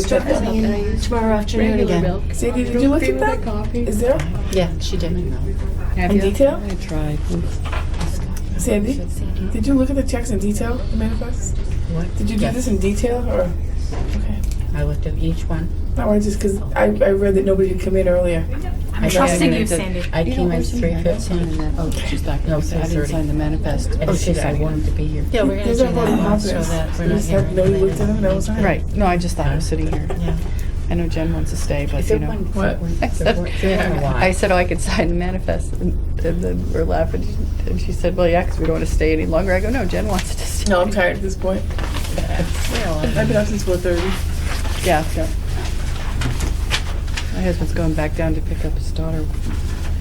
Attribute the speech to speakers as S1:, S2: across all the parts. S1: strip
S2: Regular
S1: them tomorrow afternoon again.
S2: milk.
S3: Sadie, did you look
S2: okay
S3: at
S2: with that
S3: that?
S2: coffee?
S3: Is there
S1: Yeah, she did.
S2: Have
S3: in
S2: you?
S3: detail?
S4: I tried.
S3: Sandy, did you look at the checks in detail, the manifest?
S1: What?
S3: Did you do
S1: Yes.
S3: this in detail or? Okay.
S1: I looked at each one.
S3: Not worried, just because I, I read that nobody had come in earlier.
S1: I'm
S5: trusting you, Sandy.
S1: I
S4: You
S1: came
S4: know,
S1: in
S4: where's the
S1: three
S4: manifest?
S1: fifteen.
S4: Oh, she's not
S1: No,
S4: going to, I didn't
S1: 6:30.
S4: sign the manifest.
S6: Oh,
S1: And it's just I wanted to be here.
S4: Oh, Yeah, we're gonna
S3: There's
S4: do
S3: no vote of
S4: that, so
S3: confidence.
S4: that we're
S3: You
S4: not
S3: just have,
S4: hearing.
S3: nobody looked at them, that was all.
S4: Right, no, I just thought I was sitting here.
S1: Yeah.
S4: I know Jen wants to stay, but
S1: If
S4: you
S1: it
S4: know.
S1: went-
S3: What?
S1: went-
S4: I
S1: if it
S4: said,
S1: went- yeah, why?
S4: I said, oh, I could sign the manifest, and and then we're laughing, and she said, well, yeah, 'cause we don't want to stay any longer. I go, no, Jen wants to stay.
S3: No, I'm tired at this point.
S4: Oh,
S3: I've been up since four thirty.
S4: Yeah, yeah. My husband's going back down to pick up his daughter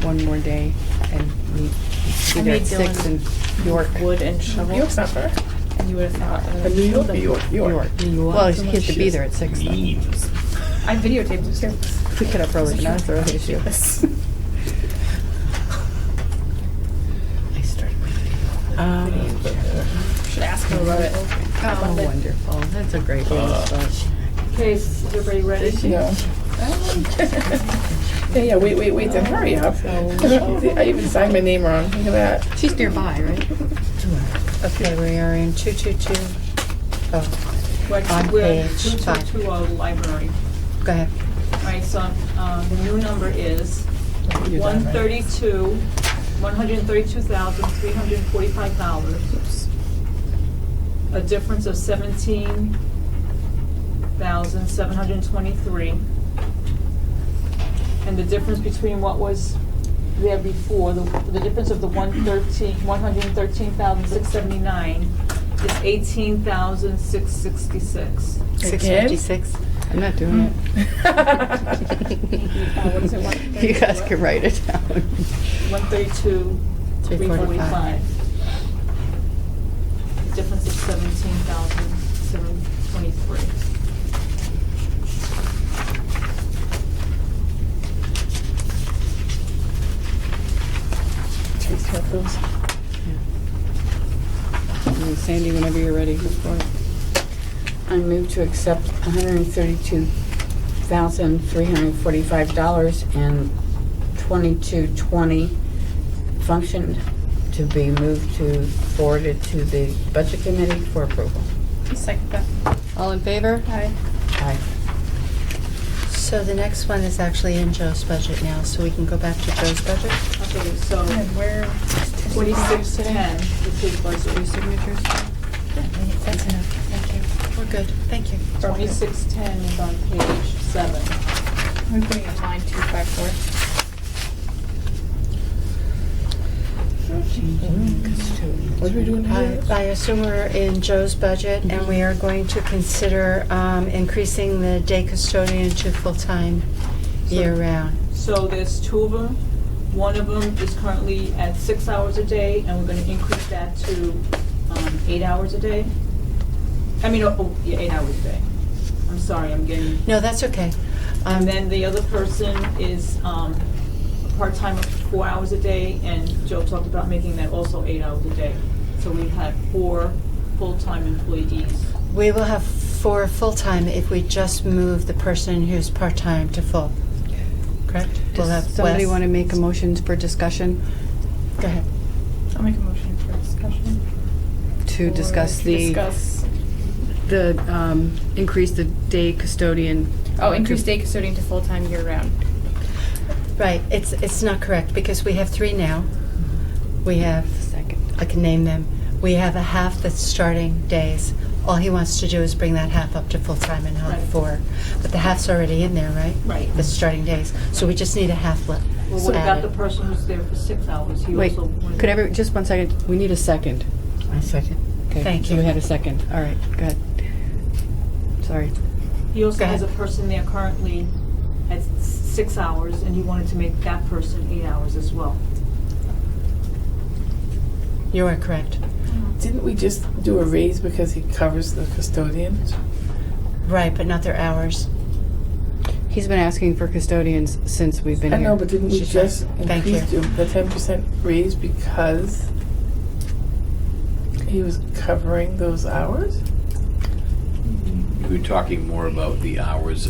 S4: one more day, and we,
S5: I
S4: we got
S5: made
S4: six in York.
S5: Wood and
S3: New
S5: shovel.
S3: York's not far.
S5: You would have thought. I
S3: But
S5: would've
S3: New York,
S5: killed
S3: New
S5: him.
S3: York, York.
S4: York. Well, he has to be there at six though. We
S7: Memes.
S5: I videotaped him. too.
S4: get up early, but not the early issue.
S1: I started my video. Um,
S5: Should ask him about it.
S4: Oh, wonderful.
S1: that's a great one.
S7: Uh,
S5: Okay, is everybody ready?
S3: Yeah. Yeah, yeah, wait, wait, wait, then hurry up.
S4: Oh.
S3: I even signed my name wrong, look at that.
S4: She's nearby, right?
S1: Okay, we are in two two two. Oh,
S8: Like,
S1: On
S8: we're
S1: page
S8: two to
S1: five.
S8: two, uh, library,
S1: go ahead.
S8: right, so, um, the new number is one thirty-two, one hundred and thirty-two thousand, three hundred and forty-five dollars. A difference of seventeen thousand, seven hundred and twenty-three. And the difference between what was there before, the, the difference of the one thirteen, one hundred and thirteen thousand, six seventy-nine is eighteen thousand, six sixty-six.
S1: Six
S3: Again?
S1: fifty-six.
S4: I'm not doing it.
S8: what is it, one
S4: You
S8: thirty
S4: guys
S8: what?
S4: can write it down.
S8: 132,
S1: Three forty five.
S8: 345. The difference is 17,723.
S3: Jeez, what those-
S4: And Sandy, whenever you're ready.
S6: I move to accept $132,345 and 2220 function to be moved to, forwarded to the Budget Committee for approval.
S4: Second All in favor? Aye.
S6: Aye.
S1: So the next one is actually in Joe's budget now, so we can go back to Joe's budget.
S8: Okay, so
S5: And where?
S8: 4610, which is
S4: Two
S8: budget,
S4: signatures?
S1: That's enough. Thank you. We're good. Thank you.
S8: 2610 is on page 7.
S5: We're putting in line two five four.
S3: What are we doing
S1: I
S3: here?
S1: I assume we're in Joe's budget, and we are going to consider um, increasing the day custodian to full-time year-round.
S8: So there's two of them. One of them is currently at six hours a day, and we're gonna increase that to um, eight hours a day. I mean, oh, oh, yeah, eight hours a day. I'm sorry, I'm getting
S1: No, that's okay. Um,
S8: And then the other person is um, a part-time of four hours a day, and Joe talked about making that also eight hours a day. So we have four full-time employees.
S1: We will have four full-time if we just move the person who's part-time to full. Correct? We'll have
S4: Does somebody
S1: Wes.
S4: want to make a motion for discussion
S1: Go ahead.
S5: I'll make a motion for discussion.
S4: to
S5: Or
S4: discuss
S5: to
S4: the,
S5: Discuss,
S4: the, um, increase the day custodian?
S5: oh, increase day custodian to full-time year-round.
S1: Right, it's, it's not correct, because we have three now. We have,
S4: Second.
S1: I can name them, we have a half that's starting days. All he wants to do is bring that half up to full-time and have
S8: Right.
S1: four. But the half's already in there, right?
S8: Right.
S1: The starting days, so we just need a half left.
S8: Well, what about the person who's there for six hours? He
S4: Wait,
S8: also wanted-
S4: could every, just one second, we need a second.
S6: I second.
S4: Okay,
S1: Thank
S4: So
S1: you.
S4: we had a second, all right, go ahead. Sorry.
S8: He also
S1: Go
S8: has a
S1: ahead.
S8: person there currently at s- six hours, and he wanted to make that person eight hours as well.
S1: You are correct.
S3: Didn't we just do a raise because he covers the custodian?
S1: Right, but not their hours.
S4: He's been asking for custodians since we've been
S3: I
S4: here.
S3: know, but didn't we
S1: She's right.
S3: just
S1: Thank you.
S3: increase the ten percent raise because he was covering those hours?
S2: we were talking more about the hours